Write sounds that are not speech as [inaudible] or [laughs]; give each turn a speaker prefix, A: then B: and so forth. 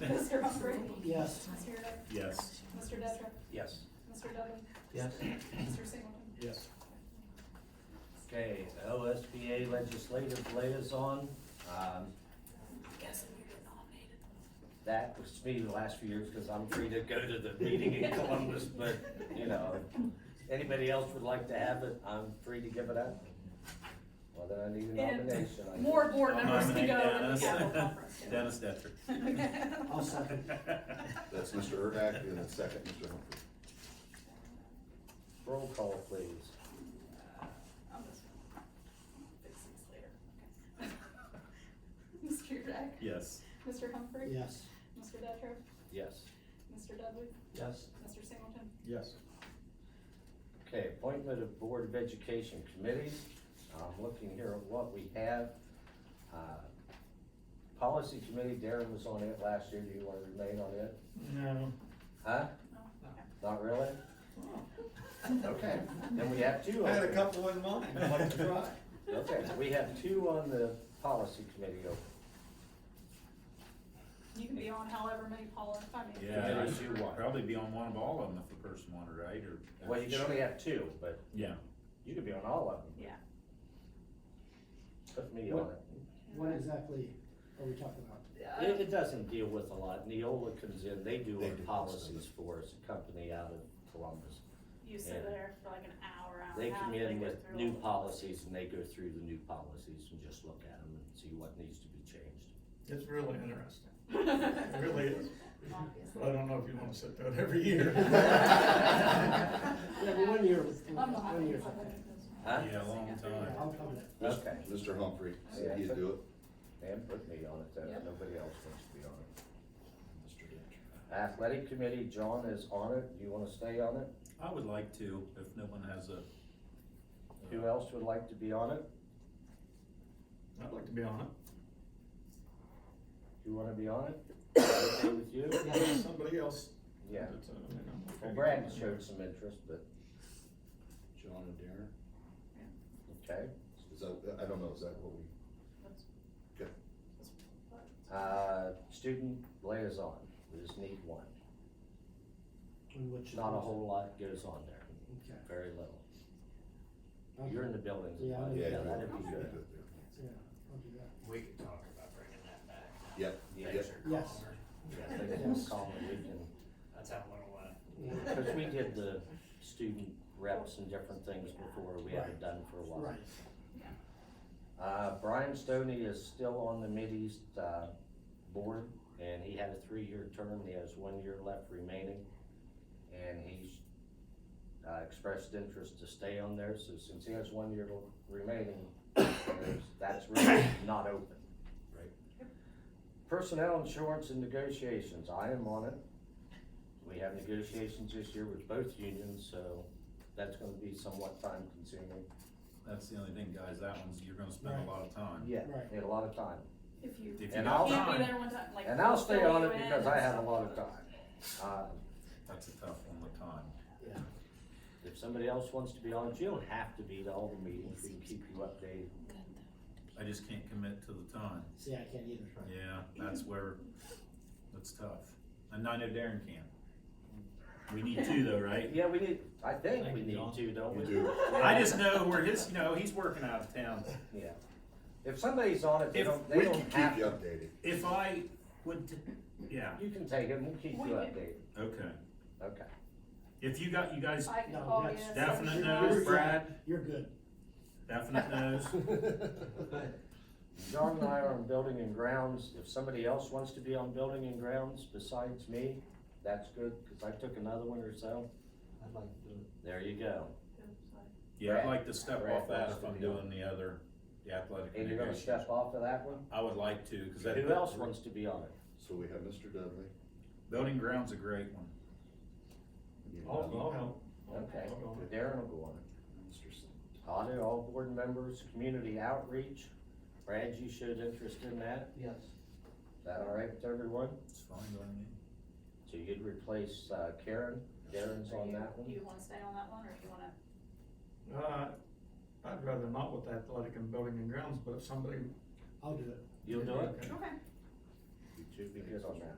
A: Mr. Humphrey?
B: Yes.
A: Mr. Hudak?
C: Yes.
A: Mr. Detra?
C: Yes.
A: Mr. Dudley?
B: Yes.
A: Mr. Singleton?
C: Yes.
D: Okay, the OSBA Legislative Liaison, um,
A: Guessing you get nominated.
D: that was me the last few years, because I'm free to go to the meeting in Columbus, but, you know, if anybody else would like to have it, I'm free to give it up. Well, then I need a nomination. I
A: And more board
C: I'll
A: members to
C: nominate
A: go in the
C: Dennis.
A: Capitol
C: [laughs]
A: Conference. yeah.
C: Dennis Detrick.
A: [laughs]
B: I'll second.
E: That's Mr. Erdak, and then second, Mr. Humphrey.
D: Roll call, please.
A: I'm just gonna fix these later. Okay. [laughs] Mr. Hudak?
C: [laughs] Yes.
A: Mr. Humphrey?
B: Yes.
A: Mr. Detra?
D: Yes.
A: Mr. Dudley?
B: Yes.
A: Mr. Singleton?
C: Yes.
D: Okay, appointment of Board of Education committees. I'm looking here at what we have. Uh, Policy Committee, Darren was on it last year. Do you want to remain on it?
B: No.
D: Huh?
A: No? Okay.
D: Not really? [laughs] Okay, then we have two.
B: I had a
D: open.
B: couple in mind, I'd like to try.
D: Okay, we have two on the Policy Committee open.
A: You can be on however many Paula, I mean.
C: Yeah, I
D: Yes, you
C: should
D: want.
C: probably be on one of all of them if the person wanted, right, or?
D: Well, you can only have two, but
C: Yeah.
D: you could be on all of them.
A: Yeah.
D: Put me on it.
A: Uh,
B: What exactly are we talking about?
D: Uh, It, it doesn't deal with a lot. Neola comes in, they do
C: They
D: our
C: do most of
D: policies for us, a company out of Columbus.
A: You
D: sit
A: sit
D: Yeah.
A: there for like an hour, hour
D: They come in with new policies and they go through the new policies and just look at them and see what needs to be changed.
F: It's really interesting. It really is. But I don't know if you wanna sit down every
B: [laughs]
F: year.
B: Yeah, but one year, one year.
D: Huh?
C: Yeah, a long
B: Yeah,
C: time.
B: I'll come in.
D: Okay,
E: Mr. Humphrey,
D: Yeah.
E: said he'd do it.
D: and put me on it, then
A: Yep.
D: nobody else wants to be on it. Athletic Committee, John is on it, do you wanna stay on it?
C: I would like to, if no one has a.
D: Who else would like to be on it?
F: I'd like to be on
D: You wanna be on it? Okay with you?
F: it. Somebody else.
D: Yeah,
F: that's, uh, I mean, I'm okay.
D: well Brad showed some interest, but,
E: John and Darren?
D: okay.
E: Is that, I don't know, is that what we,
D: Uh, student liaison, we just need one,
B: And which-
D: not a whole lot goes on there,
B: Okay.
D: very little.
B: I'll-
D: You're in the buildings.
B: Yeah, I'm in the
E: yeah.
D: Yeah,
E: you-
D: that'd
E: you
D: be
E: could
D: good.
E: do it there.
B: Yeah, I'll do that.
G: We could talk about bringing that back.
E: Yep,
G: Yeah.
E: yep.
B: Yes.
D: Yeah, they can just call and we
G: Let's have a little, uh,
D: can, cause we did the student reps and different things before, we haven't done for a while.
B: Right.
D: Uh, Brian Stoney is still on the Mideast, uh, board, and he had a three-year term, he has one year left remaining. And he's, uh, expressed interest to stay on there, so since he has one year remaining, there's- that's really not open.
E: Right.
D: Personnel insurance and negotiations, I am on it. We have negotiations this year with both unions, so that's gonna be somewhat time consuming.
C: That's the only thing, guys, that one's, you're gonna spend a lot of time.
D: Yeah,
B: Right.
D: need a lot of time.
A: If you
C: If you
D: And
C: got
D: I'll-
A: can't
C: time,
A: be there one time, like.
D: And I'll stay on
A: fill
D: it
A: you in
D: because I
A: and
D: have a
A: stuff.
D: lot of time. Uh,
C: That's a tough one, the time.
B: Yeah.
D: If somebody else wants to be on it, you don't have to be to all the meetings, we can keep you updated.
C: I just can't commit to the time.
B: See, I can't either.
C: Yeah,
D: [laughs]
C: that's where, that's tough. And I know Darren can. We need two though, right?
D: Yeah, we need, I think we
G: you,
D: need
G: John.
D: to, don't
E: You
D: we?
E: do.
C: I just know where his, you know, he's working out of town.
D: Yeah. If somebody's on it, they
C: If
D: don't,
E: We
D: they
E: can
D: don't have,
E: keep you
D: to-
E: updated.
C: If I would, t- yeah,
D: you can take it, we'll keep you
A: We can-
D: updated,
C: okay.
D: okay.
C: If you got, you guys,
A: I can
B: No,
A: call you.
B: that's
A: and say-
C: definite
B: You're-
C: no's, Brad,
B: You're good.
C: definite
B: [laughs]
C: no's.
D: John and I are on building and grounds, if somebody else wants to be on building and grounds besides me, that's good, cause I took another one or so,
G: I'd like to do it.
D: there you go.
C: Yeah, I'd like to step
D: Brad
C: off that if
D: wants to
C: I'm
D: be on.
C: doing the other, the athletic
D: And you're gonna
C: negotiations.
D: step off of that one?
C: I would like to, cause that.
D: Who else wants to be on it?
E: So we have Mr. Dudley.
C: Building ground's a great one.
E: you
F: I'll,
E: know,
F: I'll help. I'll-
D: Okay.
F: I'll go on it.
D: Darren will go on it.
E: Mr. Sin-
D: Audit all board members, community outreach. Brad, you showed interest in that.
B: Yes.
D: Is that all right with everyone?
C: It's fine by me.
D: So you'd replace uh, Karen. Darren's
A: Are
D: on
A: you-
D: that
A: Do
D: one.
A: you wanna stay on that one, or do you wanna,
F: Uh, I'd rather not with athletic and building and grounds, but if somebody.
B: I'll do it.
D: You'll do it?
F: Okay.
A: okay.
D: You two be good on that.